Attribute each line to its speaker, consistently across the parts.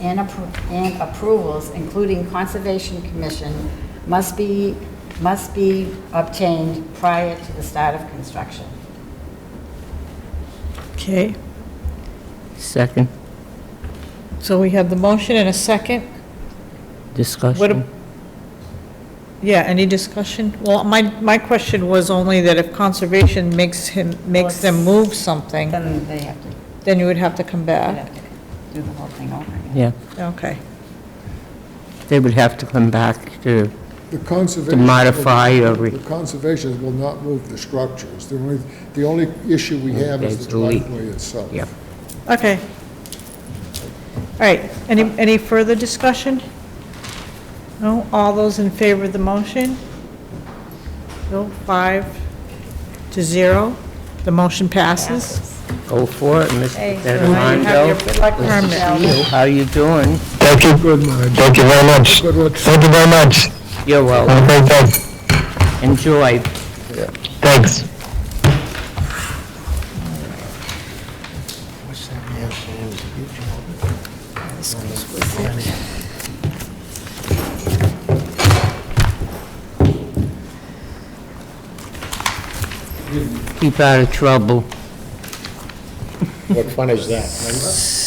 Speaker 1: and appro- and approvals, including Conservation Commission, must be, must be obtained prior to the start of construction.
Speaker 2: Okay,
Speaker 3: Second,
Speaker 2: so we have the motion and a second. What, a-
Speaker 3: discussion.
Speaker 2: yeah, any discussion? Well, my, my question was only that if conservation makes him, makes them move something,
Speaker 1: Then they have to,
Speaker 2: then you would have to come
Speaker 1: they'd
Speaker 2: back.
Speaker 1: have to do the whole thing over again.
Speaker 3: Yeah,
Speaker 2: Okay,
Speaker 3: they would have to come back to,
Speaker 4: The conservation.
Speaker 3: To modify or re-
Speaker 4: The conservation will not move the structures. The only, the only issue we have
Speaker 3: It's
Speaker 4: is the
Speaker 3: the leak.
Speaker 4: driveway itself.
Speaker 3: yeah.
Speaker 2: okay. All right, any, any further discussion? No, all those in favor of the motion? No, five to zero, the motion passes.
Speaker 3: Go for it, Mr.
Speaker 2: Hey, so now you have your
Speaker 3: Fedorando.
Speaker 2: black permit.
Speaker 3: You, How you doing?
Speaker 5: Thank you.
Speaker 4: Good, Marge.
Speaker 5: Thank you very much.
Speaker 4: Good luck.
Speaker 5: Thank you very much.
Speaker 3: You're
Speaker 5: Have
Speaker 3: well,
Speaker 5: a great day.
Speaker 3: enjoy.
Speaker 5: Thanks.
Speaker 3: Keep out of trouble.
Speaker 6: What fun is that?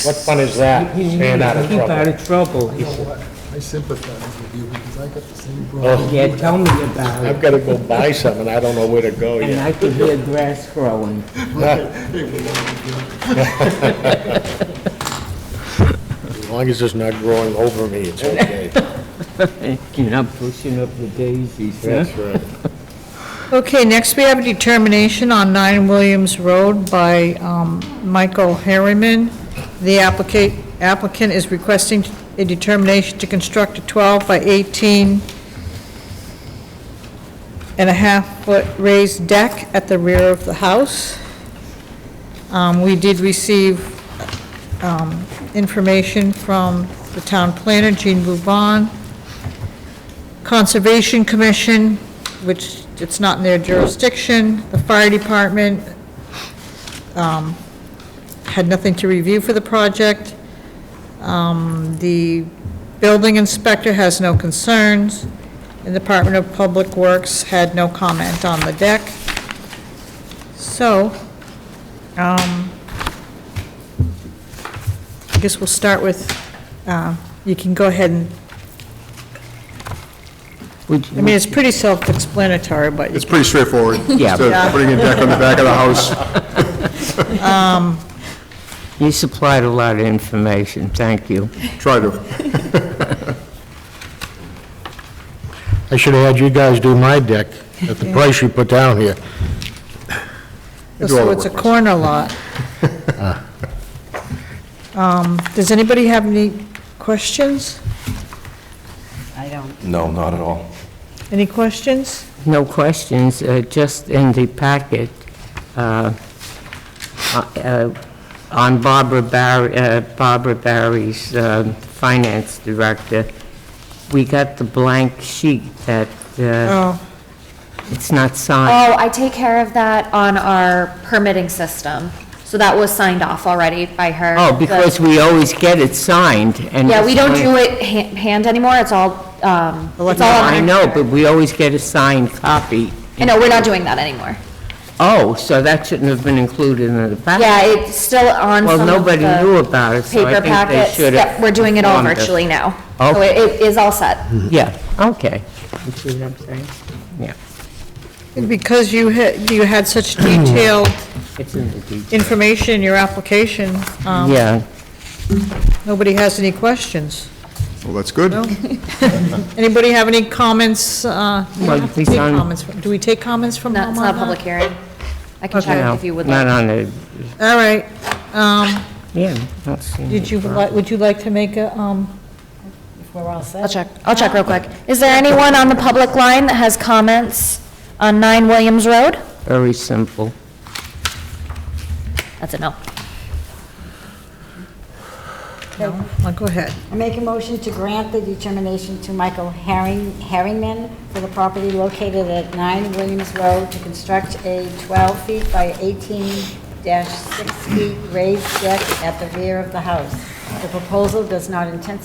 Speaker 6: What fun is that, staying out of
Speaker 3: Keep out
Speaker 6: trouble?
Speaker 3: of trouble, he said.
Speaker 4: I sympathize with you because I got the same problem.
Speaker 6: Oh,
Speaker 3: Yeah, tell me about it.
Speaker 6: I've got to go buy some, and I don't know where to go
Speaker 3: And
Speaker 6: yet.
Speaker 3: I could hear grass growing.
Speaker 6: As long as it's not growing over me, it's okay.
Speaker 3: You're not pushing up the daisies, huh?
Speaker 6: That's right.
Speaker 2: Okay, next we have a determination on 9 Williams Road by um, Michael Harriman. The applicant, applicant is requesting a determination to construct a 12 by 18 and a half foot raised deck at the rear of the house. Um, We did receive um, information from the town planner, Jean Bouvan, Conservation Commission, which it's not in their jurisdiction, the fire department um, had nothing to review for the project. Um, The building inspector has no concerns, and the Department of Public Works had no comment on the deck. So, um, I guess we'll start with, uh, you can go ahead and
Speaker 3: Would
Speaker 2: I mean,
Speaker 3: you,
Speaker 2: it's pretty self-explanatory, but
Speaker 7: It's pretty straightforward.
Speaker 3: Yeah.
Speaker 7: Just uh, putting a deck on the back of the house.
Speaker 8: Um,
Speaker 3: you supplied a lot of information, thank you.
Speaker 7: Try to.
Speaker 6: I should have had you guys do my deck at the price you put down here.
Speaker 7: do all
Speaker 2: so
Speaker 7: the
Speaker 2: it's a
Speaker 7: work.
Speaker 2: corner lot. Um, Does anybody have any questions?
Speaker 1: I don't,
Speaker 9: No, not at all.
Speaker 2: Any questions?
Speaker 3: No questions, uh, just in the packet, uh, uh, on Barbara Barry, uh, Barbara Barry's um, finance director, we got the blank sheet that uh,
Speaker 2: Oh,
Speaker 3: it's not signed.
Speaker 8: Oh, I take care of that on our permitting system. So that was signed off already by her.
Speaker 3: Oh, because we always get it signed, and...
Speaker 8: Yeah, we don't do it ha- hand anymore, it's all, um, it's
Speaker 3: No,
Speaker 8: all on.
Speaker 3: I know, but we always get a signed copy.
Speaker 8: I know, we're not doing that anymore.
Speaker 3: Oh, so that shouldn't have been included in the packet.
Speaker 8: Yeah, it's still on
Speaker 3: Well,
Speaker 8: some of
Speaker 3: nobody
Speaker 8: the
Speaker 3: knew about it, so I
Speaker 8: Paper
Speaker 3: think they
Speaker 8: packets,
Speaker 3: should have...
Speaker 8: Yep, we're doing it all
Speaker 3: informed us.
Speaker 8: virtually now. So
Speaker 3: Okay. Hmm.
Speaker 8: it- it is all set.
Speaker 3: Yeah, okay. You see what I'm saying? Yeah,
Speaker 2: because you had, you had such detailed
Speaker 3: it's in the detail.
Speaker 2: information in your application, um,
Speaker 3: Yeah,
Speaker 2: nobody has any questions.
Speaker 7: Well, that's good.
Speaker 2: Anybody have any comments? uh,
Speaker 3: Well,
Speaker 2: do we
Speaker 3: please
Speaker 2: take
Speaker 3: on-
Speaker 2: comments from- Do we take comments from
Speaker 8: No,
Speaker 2: them
Speaker 8: It's
Speaker 2: on
Speaker 8: not a
Speaker 2: that?
Speaker 8: public hearing. I can check
Speaker 3: no,
Speaker 8: if you would
Speaker 3: not
Speaker 8: like.
Speaker 3: on the,
Speaker 2: All right, um,
Speaker 3: yeah, not seeing...
Speaker 2: did you, li- would you like to make a, um,
Speaker 1: if we're all set.
Speaker 8: I'll check, I'll check real quick. Is there anyone on the public line that has comments on 9 Williams Road?
Speaker 3: Very simple.
Speaker 8: That's a no.
Speaker 2: well, go ahead.
Speaker 1: I make a motion to grant the determination to Michael Herring- Herringman for the property located at 9 Williams Road to construct a 12 feet by 18 dash 6 feet raised deck at the rear of the house. The proposal does not intensify